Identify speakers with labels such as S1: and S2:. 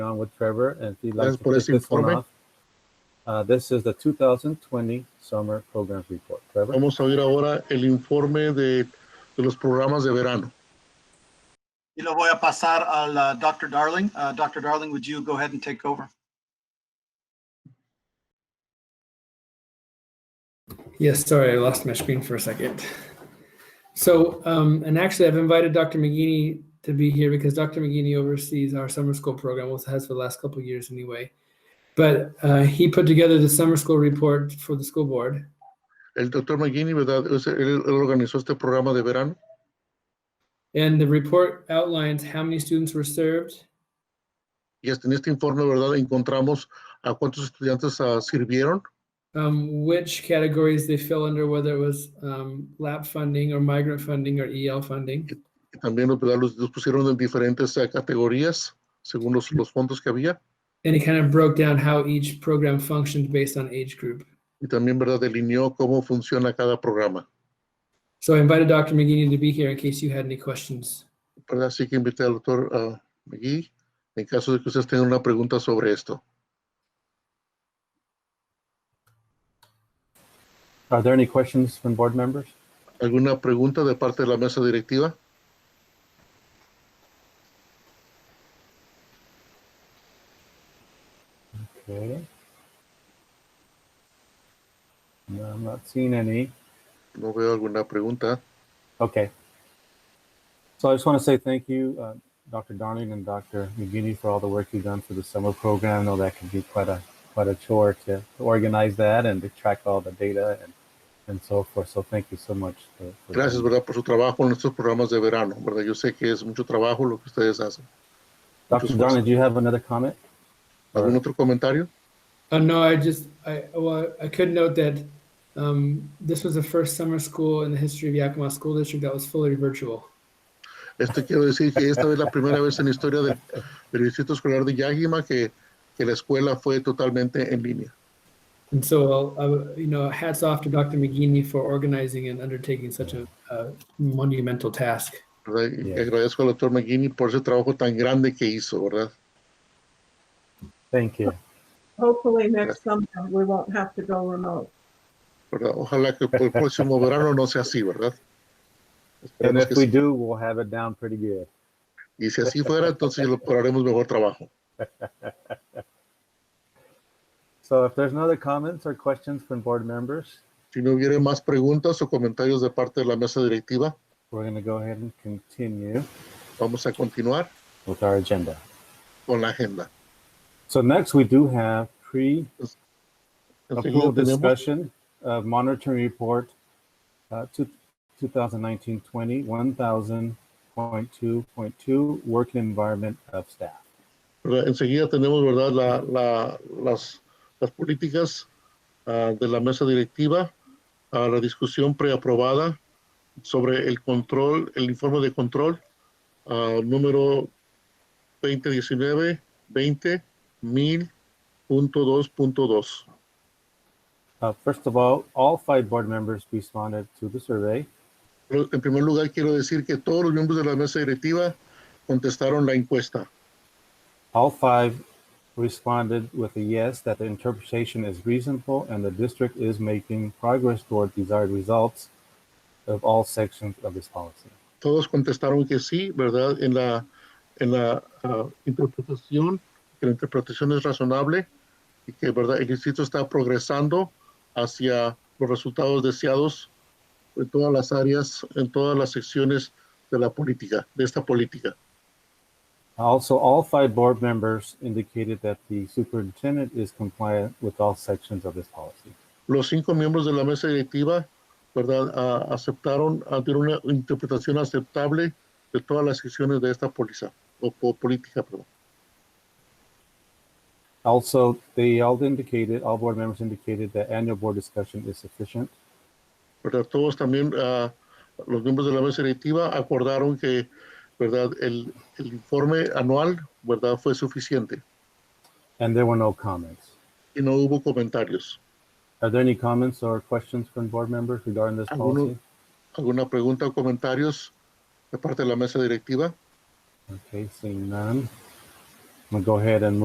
S1: on with Trevor, and if you'd like
S2: Gracias
S1: to
S2: por
S1: kick
S2: ese
S1: this one
S2: informe.
S1: off. Uh, this is the 2020 Summer Programs Report. Trevor?
S2: Vamos a ver ahora el informe de, de los programas de verano.
S3: Y lo voy a pasar al uh, Dr. Darling. Uh, Dr. Darling, would you go ahead and take over?
S4: Yes, sorry, I lost my screen for a second. So, um, and actually, I've invited Dr. McGinney to be here because Dr. McGinney oversees our summer school program, well, has for the last couple of years anyway. But uh, he put together the summer school report for the school board.
S2: El doctor McGinney, ¿verdad? Es- Él, él organizó este programa de verano
S4: And the report outlines how many students were served,
S2: y hasta en este informe, ¿verdad? Encontramos a cuántos estudiantes ah, sirvieron,
S4: um, which categories they fell under, whether it was um, LAP funding or migrant funding or EL funding.
S2: y también ¿verdad? los, los pusieron en diferentes ah, categorías según los, los fondos que había
S4: And it kind of broke down how each program functioned based on age group.
S2: y también, ¿verdad? Delineó cómo funciona cada programa,
S4: So I invited Dr. McGinney to be here in case you had any questions.
S2: ¿verdad? Así que invité al doctor ah, McGee en caso de que ustedes tengan una pregunta sobre esto.
S1: Are there any questions from board members?
S2: ¿Alguna pregunta de parte de la mesa directiva?
S1: Okay. No, I'm not seeing any.
S2: No veo alguna pregunta.
S1: Okay. So I just want to say thank you, uh, Dr. Darling and Dr. McGinney for all the work you've done for the summer program. I know that can be quite a, quite a chore to to organize that and to track all the data and, and so forth. So thank you so much. for- for-
S2: Gracias, ¿verdad? Por su trabajo en estos programas de verano, ¿verdad? Yo sé que es mucho trabajo lo que ustedes hacen.
S1: Dr. Darling, do you have another comment?
S2: ¿Algún otro comentario?
S4: Uh, no, I just, I, well, I could note that um, this was the first summer school in the history of Yakima School District that was fully virtual.
S2: Esto quiero decir que esta es la primera vez en la historia del, del Distrito Escolar de Yakima que, que la escuela fue totalmente en línea.
S4: And so, uh, you know, hats off to Dr. McGinney for organizing and undertaking such a, a monumental task.
S2: ¿verdad? Y
S1: Bien.
S2: agradezco al doctor McGinney por ese trabajo tan grande que hizo, ¿verdad?
S1: Thank you.
S5: Hopefully next summer, we won't have to go remote.
S2: ¿verdad? Ojalá que por el próximo verano no sea así, ¿verdad?
S1: And
S2: Esperemos
S1: if
S2: que
S1: we
S2: sí.
S1: do, we'll have it down pretty good.
S2: Y si así fuera, entonces lo haremos mejor trabajo.
S1: So if there's no other comments or questions from board members,
S2: Si no hubiera más preguntas o comentarios de parte de la mesa directiva,
S1: we're going to go ahead and continue
S2: vamos a continuar
S1: with our agenda.
S2: con la agenda.
S1: So next, we do have pre
S2: Enseguida
S1: Approve
S2: tenemos
S1: discussion of monitoring report, uh, two, two thousand nineteen twenty, one thousand point two point two, working environment of staff.
S2: ¿verdad? enseguida tenemos verdad la, la- las, las políticas ah, de la mesa directiva a la discusión preaprobada sobre el control el informe de control ah, número 2019 20 1000.2.2
S1: Uh, first of all, all five board members responded to the survey.
S2: Pero, en primer lugar quiero decir que todos los miembros de la mesa directiva contestaron la encuesta
S1: All five responded with a yes, that the interpretation is reasonable and the district is making progress toward desired results of all sections of this policy.
S2: todos contestaron que sí, ¿verdad? En la, en la ah, interpretación, que la interpretación es razonable y que, ¿verdad? El distrito está progresando hacia los resultados deseados en todas las áreas, en todas las secciones de la política, de esta política.
S1: Also, all five board members indicated that the superintendent is compliant with all sections of this policy.
S2: Los cinco miembros de la mesa directiva, ¿verdad? Ah, aceptaron, ah, dieron una interpretación aceptable de todas las secciones de esta póliza, o, po- política, perdón.
S1: Also, they all indicated, all board members indicated that annual board discussion is sufficient.
S2: ¿verdad? Todos también, ah, los miembros de la mesa directiva acordaron que, ¿verdad? El, el informe anual, ¿verdad? Fue suficiente
S1: And there were no comments.
S2: y no hubo comentarios.
S1: Are there any comments or questions from board members regarding this policy?
S2: Alguno- ¿Alguna pregunta o comentarios de parte de la mesa directiva?
S1: Okay, seeing none. I'm gonna go ahead and move